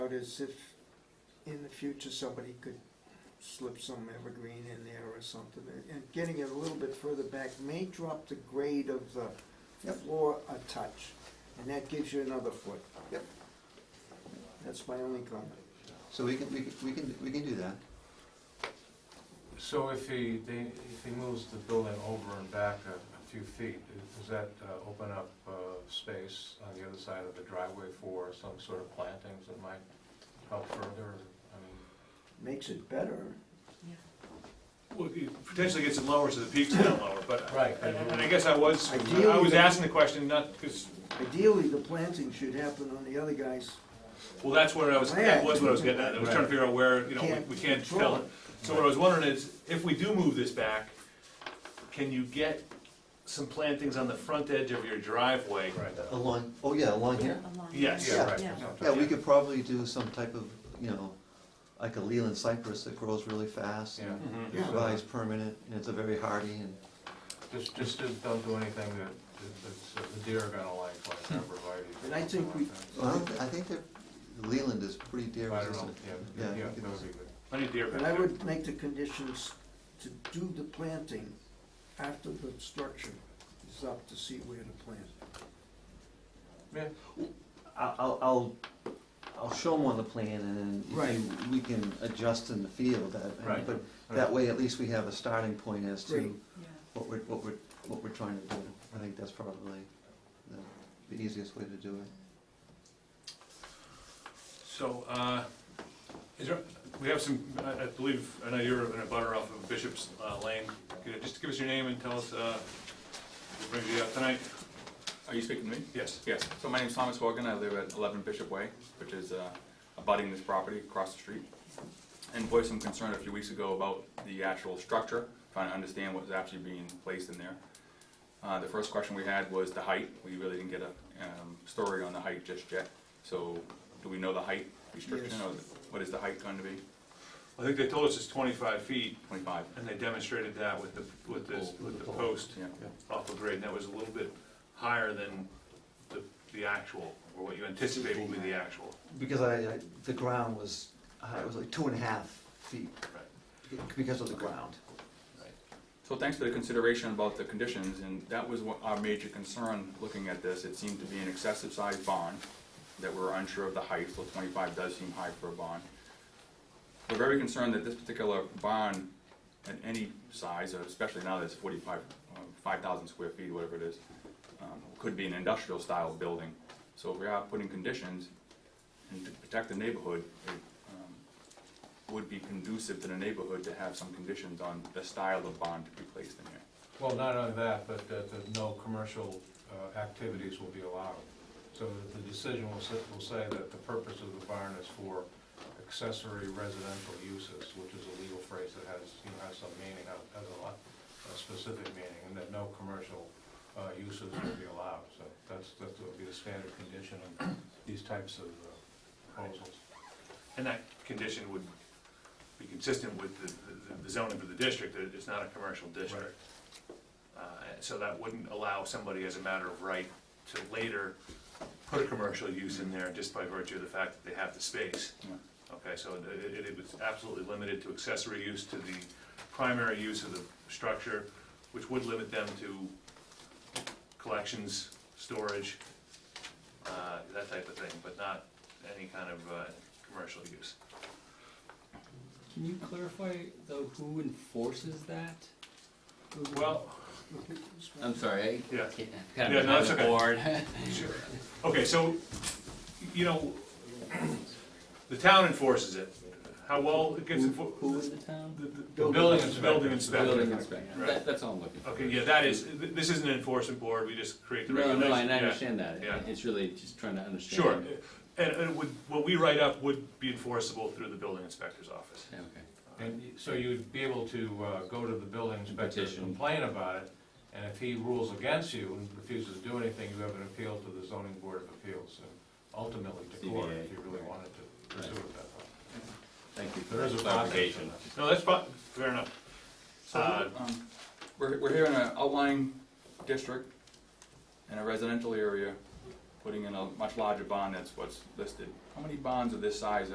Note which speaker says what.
Speaker 1: out is if in the future somebody could slip some evergreen in there or something, and- and getting it a little bit further back may drop the grade of the
Speaker 2: Yep.
Speaker 1: floor a touch, and that gives you another foot.
Speaker 2: Yep.
Speaker 1: That's my only comment.
Speaker 2: So we can, we can, we can, we can do that.
Speaker 3: So if he, they, if he moves the building over and back a, a few feet, does that uh, open up, uh, space on the other side of the driveway for some sort of plantings that might help further? I mean,
Speaker 1: Makes it better.
Speaker 4: Well, it potentially gets it lower, so the peak's down lower, but,
Speaker 3: Right.
Speaker 4: and and I guess I was, I was asking the question, not, because,
Speaker 1: Ideally, the planting should happen on the other guy's
Speaker 4: well, that's what I was, that was what I was getting at, I was trying to figure out where, you know, we we can't tell it. So what I was wondering is, if we do move this back, can you get some plantings on the front edge of your driveway?
Speaker 3: Right.
Speaker 2: Along, oh yeah, along
Speaker 5: Yeah,
Speaker 2: here.
Speaker 5: along
Speaker 4: Yes.
Speaker 5: there.
Speaker 3: Yeah, right.
Speaker 5: Yeah.
Speaker 3: that's what
Speaker 2: Yeah,
Speaker 3: I'm
Speaker 2: we
Speaker 3: talking
Speaker 2: could probably do some type of, you know, like a Leland cypress that grows really fast.
Speaker 3: about.
Speaker 2: and
Speaker 3: Yeah.
Speaker 1: Yeah.
Speaker 2: Survives permanent, and it's a very hardy, and
Speaker 3: Just, just don't- don't do anything that, that- that's, that the deer are gonna like, like arborvitae.
Speaker 1: Hmm. And I think we-
Speaker 2: well, I don't, thi- I think that Leland is pretty
Speaker 3: I
Speaker 2: deer
Speaker 3: don't know,
Speaker 2: resistant.
Speaker 3: yeah,
Speaker 2: Yeah,
Speaker 3: yeah,
Speaker 2: we could-
Speaker 3: that would be good.
Speaker 4: Plenty of deer back
Speaker 1: But I
Speaker 4: there.
Speaker 1: would make the conditions to do the planting after the structure is up to see where to plant.
Speaker 3: Yeah,
Speaker 2: I'll- I'll, I'll, I'll show them on the plan, and then
Speaker 1: Right.
Speaker 2: if you- we can adjust in the field. that-
Speaker 3: Right.
Speaker 2: But
Speaker 3: Right.
Speaker 2: that way, at least we have a starting point as to
Speaker 1: Right.
Speaker 5: Yeah.
Speaker 2: what we're, what we're, what we're trying to do. I think that's probably the- the easiest way to do it.
Speaker 4: So, uh, is there, we have some, I I believe, I know you're in a butter off of Bishop's uh, Lane. Could you Just give us your name and tell us, uh, what brings you up tonight?
Speaker 6: Are you speaking to me?
Speaker 4: Yes.
Speaker 6: Yes. So my name's Thomas Wogan. I live at 11 Bishop Way, which is uh, abutting this property across the street. And voiced some concern a few weeks ago about the actual structure, trying to understand what was actually being placed in there. Uh, The first question we had was the height. We really didn't get a um, story on the height just yet. So do we know the height restriction
Speaker 1: Yes.
Speaker 6: or what is the height going to be?
Speaker 4: I think they told us it's twenty-five feet,
Speaker 6: 25?
Speaker 4: and they demonstrated that with the, with the, with the post
Speaker 6: Yeah.
Speaker 4: off the grade, and that was a little bit higher than the, the actual, or what you anticipate will be the actual.
Speaker 2: Because I, I- the ground was, uh, it was like two and a half feet
Speaker 4: Right.
Speaker 2: because of the ground.
Speaker 6: So thanks for the consideration about the conditions, and that was what our major concern looking at this. It seemed to be an excessive sized barn that we're unsure of the height, so twenty-five does seem high for a barn. We're very concerned that this particular barn, at any size, or especially now that it's forty-five, uh, five thousand square feet, whatever it is, um, could be an industrial style building. So if we are putting conditions and to protect the neighborhood, it um, would be conducive to the neighborhood to have some conditions on the style of bond to be placed in here.
Speaker 3: Well, not only that, but that, that no commercial uh, activities will be allowed. So that the decision will say, will say that the purpose of the barn is for accessory residential uses, which is a legal phrase that has, you know, has some meaning, has has a lot, a specific meaning, and that no commercial uh, uses will be allowed. So that's, that would be the standard condition on these types of uh, proposals.
Speaker 4: And that condition would be consistent with the, the- the zoning for the district, that it's not a commercial district. Uh, so that wouldn't allow somebody as a matter of right to later put a commercial use in there just by virtue of the fact that they have the space.
Speaker 6: Yeah.
Speaker 4: Okay, so it, it- it was absolutely limited to accessory use to the primary use of the structure, which would limit them to collections, storage, uh, that type of thing, but not any kind of, uh, commercial use.
Speaker 7: Can you clarify though who enforces that?
Speaker 4: Well,
Speaker 1: Um,
Speaker 7: I'm sorry,
Speaker 4: yeah,
Speaker 7: I can't- I'm kind
Speaker 4: Yeah,
Speaker 7: of
Speaker 4: no, that's
Speaker 7: behind the
Speaker 4: okay.
Speaker 7: board.
Speaker 4: sure. Okay, so, you know, the town enforces it. How well it gets
Speaker 7: Who- Who
Speaker 4: enforced?
Speaker 7: is the town?
Speaker 4: The the building inspector. Building
Speaker 7: Building
Speaker 4: inspector.
Speaker 7: inspector,
Speaker 4: Right.
Speaker 7: that, that's all I'm looking for.
Speaker 4: Okay, yeah, that is, th- this isn't an enforcement board, we just create the
Speaker 7: No,
Speaker 4: regulations.
Speaker 7: no, and I
Speaker 4: Yeah.
Speaker 7: understand that,
Speaker 4: yeah.
Speaker 7: it's really just trying to understand.
Speaker 4: Sure, and, and it would, what we write up would be enforceable through the building inspector's office.
Speaker 7: Yeah, Okay.
Speaker 3: And y- so you'd be able to uh, go to the building inspector and
Speaker 7: Petition.
Speaker 3: complain about it, and if he rules against you and refuses to do anything, you have an appeal to the zoning board of appeals, and ultimately to court, if you really wanted to pursue it that way.
Speaker 7: Thank you for
Speaker 3: There is
Speaker 7: that
Speaker 3: a
Speaker 7: clarification.
Speaker 3: clarification.
Speaker 4: No, that's fine, fair enough. Uh,
Speaker 6: So, um, we're, we're here in an outlying district, in a residential area, putting in a much larger barn, that's what's listed. How many barns of this size